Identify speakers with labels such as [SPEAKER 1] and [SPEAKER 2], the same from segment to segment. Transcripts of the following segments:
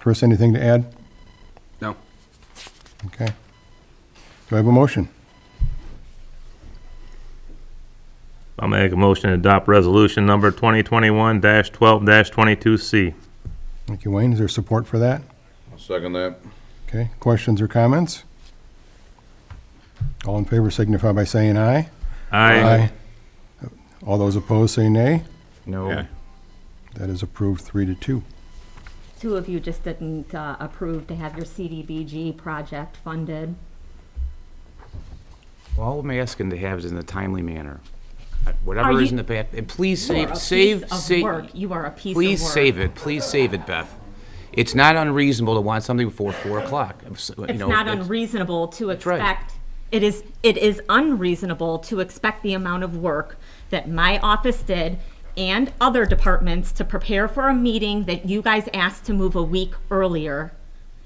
[SPEAKER 1] Chris, anything to add?
[SPEAKER 2] No.
[SPEAKER 1] Okay. Do I have a motion?
[SPEAKER 3] I'll make a motion to adopt resolution number 2021-12-22C.
[SPEAKER 1] Thank you, Wayne. Is there support for that?
[SPEAKER 4] I'll second that.
[SPEAKER 1] Okay, questions or comments? All in favor signify by saying aye.
[SPEAKER 3] Aye.
[SPEAKER 1] All those opposed say nay.
[SPEAKER 2] No.
[SPEAKER 1] That is approved three to two.
[SPEAKER 5] Two of you just didn't uh, approve to have your CDBG project funded.
[SPEAKER 2] Well, all I'm asking to have is in a timely manner. Uh, Whatever
[SPEAKER 5] Are
[SPEAKER 2] is
[SPEAKER 5] you-
[SPEAKER 2] in the path, and please
[SPEAKER 5] You are a
[SPEAKER 2] save,
[SPEAKER 5] piece
[SPEAKER 2] save,
[SPEAKER 5] of
[SPEAKER 2] save.
[SPEAKER 5] work. You are a piece of
[SPEAKER 2] Please
[SPEAKER 5] work.
[SPEAKER 2] save it, please save it, Beth. It's not unreasonable to want something before four o'clock. It's
[SPEAKER 5] It's not unreasonable to
[SPEAKER 2] right.
[SPEAKER 5] expect, it is, it is unreasonable to expect the amount of work that my office did and other departments to prepare for a meeting that you guys asked to move a week earlier.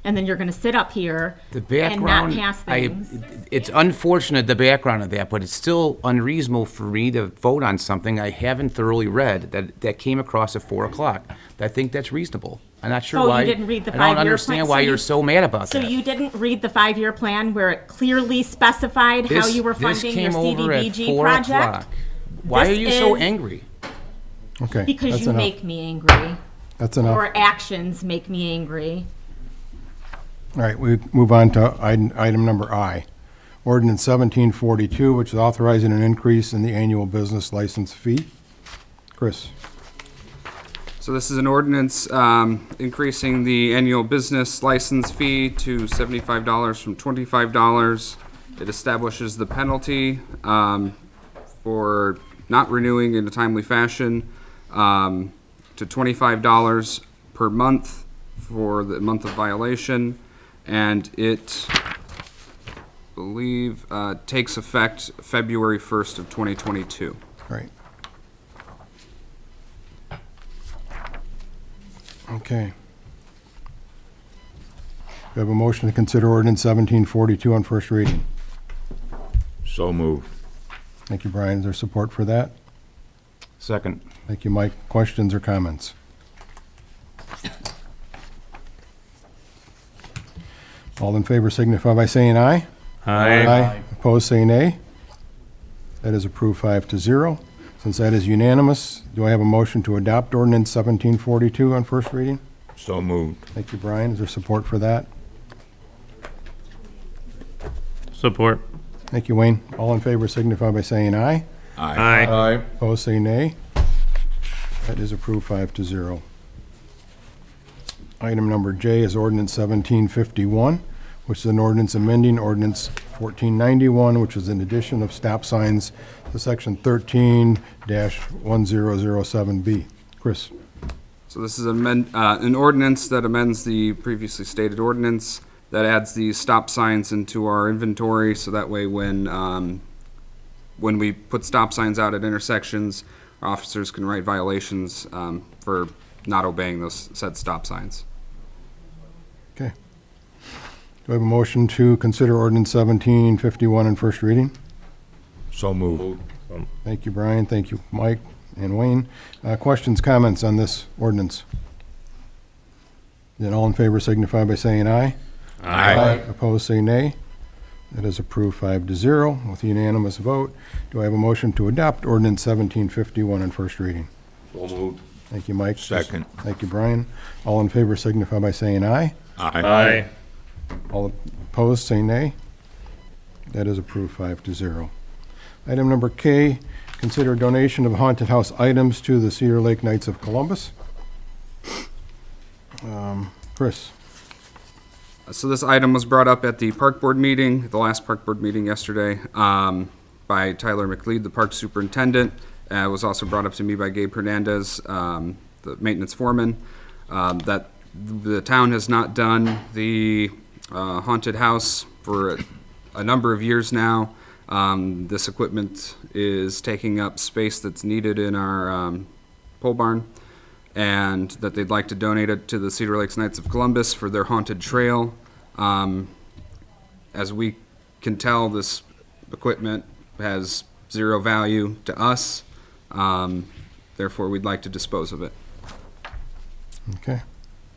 [SPEAKER 5] And then you're gonna sit up here
[SPEAKER 2] The
[SPEAKER 5] and not
[SPEAKER 2] background,
[SPEAKER 5] pass
[SPEAKER 2] I,
[SPEAKER 5] things.
[SPEAKER 2] it's unfortunate, the background of that, but it's still unreasonable for me to vote on something I haven't thoroughly read that, that came across at four o'clock. I think that's reasonable. I'm not sure
[SPEAKER 5] Oh, you
[SPEAKER 2] why.
[SPEAKER 5] didn't read the
[SPEAKER 2] I
[SPEAKER 5] five-year
[SPEAKER 2] don't
[SPEAKER 5] plan,
[SPEAKER 2] understand
[SPEAKER 5] so
[SPEAKER 2] why
[SPEAKER 5] you-
[SPEAKER 2] you're so mad about
[SPEAKER 5] So
[SPEAKER 2] that.
[SPEAKER 5] you didn't read the five-year plan where it clearly specified how
[SPEAKER 2] This-
[SPEAKER 5] you were
[SPEAKER 2] this
[SPEAKER 5] funding your
[SPEAKER 2] came over at
[SPEAKER 5] CDBG
[SPEAKER 2] four
[SPEAKER 5] project?
[SPEAKER 2] o'clock. Why
[SPEAKER 5] This
[SPEAKER 2] are you so
[SPEAKER 5] is-
[SPEAKER 2] angry?
[SPEAKER 1] Okay.
[SPEAKER 5] Because
[SPEAKER 1] that's
[SPEAKER 5] you
[SPEAKER 1] enough.
[SPEAKER 5] make me angry,
[SPEAKER 1] That's enough.
[SPEAKER 5] or actions make me angry.
[SPEAKER 1] All right, we move on to item, item number I. Ordinance seventeen forty-two, which is authorizing an increase in the annual business license fee. Chris,
[SPEAKER 6] So this is an ordinance um, increasing the annual business license fee to seventy-five dollars from twenty-five dollars. It establishes the penalty um, for not renewing in a timely fashion um, to twenty-five dollars per month for the month of violation. And it, I believe, uh, takes effect February first of twenty twenty-two.
[SPEAKER 1] all right. Okay. We have a motion to consider ordinance seventeen forty-two on first reading.
[SPEAKER 4] So moved.
[SPEAKER 1] Thank you, Brian. Is there support for that?
[SPEAKER 2] Second.
[SPEAKER 1] Thank you, Mike. Questions or comments? All in favor signify by saying aye.
[SPEAKER 3] Aye.
[SPEAKER 1] Opposed, say nay. That is approved five to zero. Since that is unanimous, do I have a motion to adopt ordinance 1742 on first reading?
[SPEAKER 4] So moved.
[SPEAKER 1] Thank you, Brian. Is there support for that?
[SPEAKER 3] Support.
[SPEAKER 1] Thank you, Wayne. All in favor signify by saying aye.
[SPEAKER 3] Aye.
[SPEAKER 4] Aye.
[SPEAKER 1] Opposed, say nay. That is approved five to zero. Item number J is ordinance 1751, which is an ordinance amending ordinance 1491, which is an addition of stop signs to section 13-1007B. Chris,
[SPEAKER 6] So this is amend, uh, an ordinance that amends the previously stated ordinance that adds the stop signs into our inventory, so that way when, um, when we put stop signs out at intersections, our officers can write violations, um, for not obeying those said stop signs.
[SPEAKER 1] okay. Do I have a motion to consider ordinance 1751 in first reading?
[SPEAKER 4] So moved.
[SPEAKER 1] Thank you, Brian. Thank you, Mike and Wayne. Uh, Questions, comments on this ordinance? Then all in favor signify by saying aye. Opposed, say nay. That is approved five to zero with unanimous vote. Do I have a motion to adopt ordinance 1751 on first reading?
[SPEAKER 4] So moved.
[SPEAKER 1] Thank you, Mike.
[SPEAKER 4] Second.
[SPEAKER 1] Thank you, Brian. All in favor signify by saying aye.
[SPEAKER 4] Aye.
[SPEAKER 3] Aye.
[SPEAKER 1] All opposed, say nay. That is approved five to zero. Item number K, consider donation of haunted house items to the Cedar Lake Knights of Columbus. Um, Chris,
[SPEAKER 6] So this item was brought up at the park board meeting, the last park board meeting yesterday, um, by Tyler McLeod, the park superintendent. Uh, it was also brought up to me by Gabe Hernandez, um, the maintenance foreman, um, that the town has not done the uh, haunted house for a number of years now. Um, this equipment is taking up space that's needed in our, um, pole barn and that they'd like to donate it to the Cedar Lakes Knights of Columbus for their haunted trail. Um, as we can tell, this equipment has zero value to us. Um, therefore, we'd like to dispose of it.
[SPEAKER 1] okay.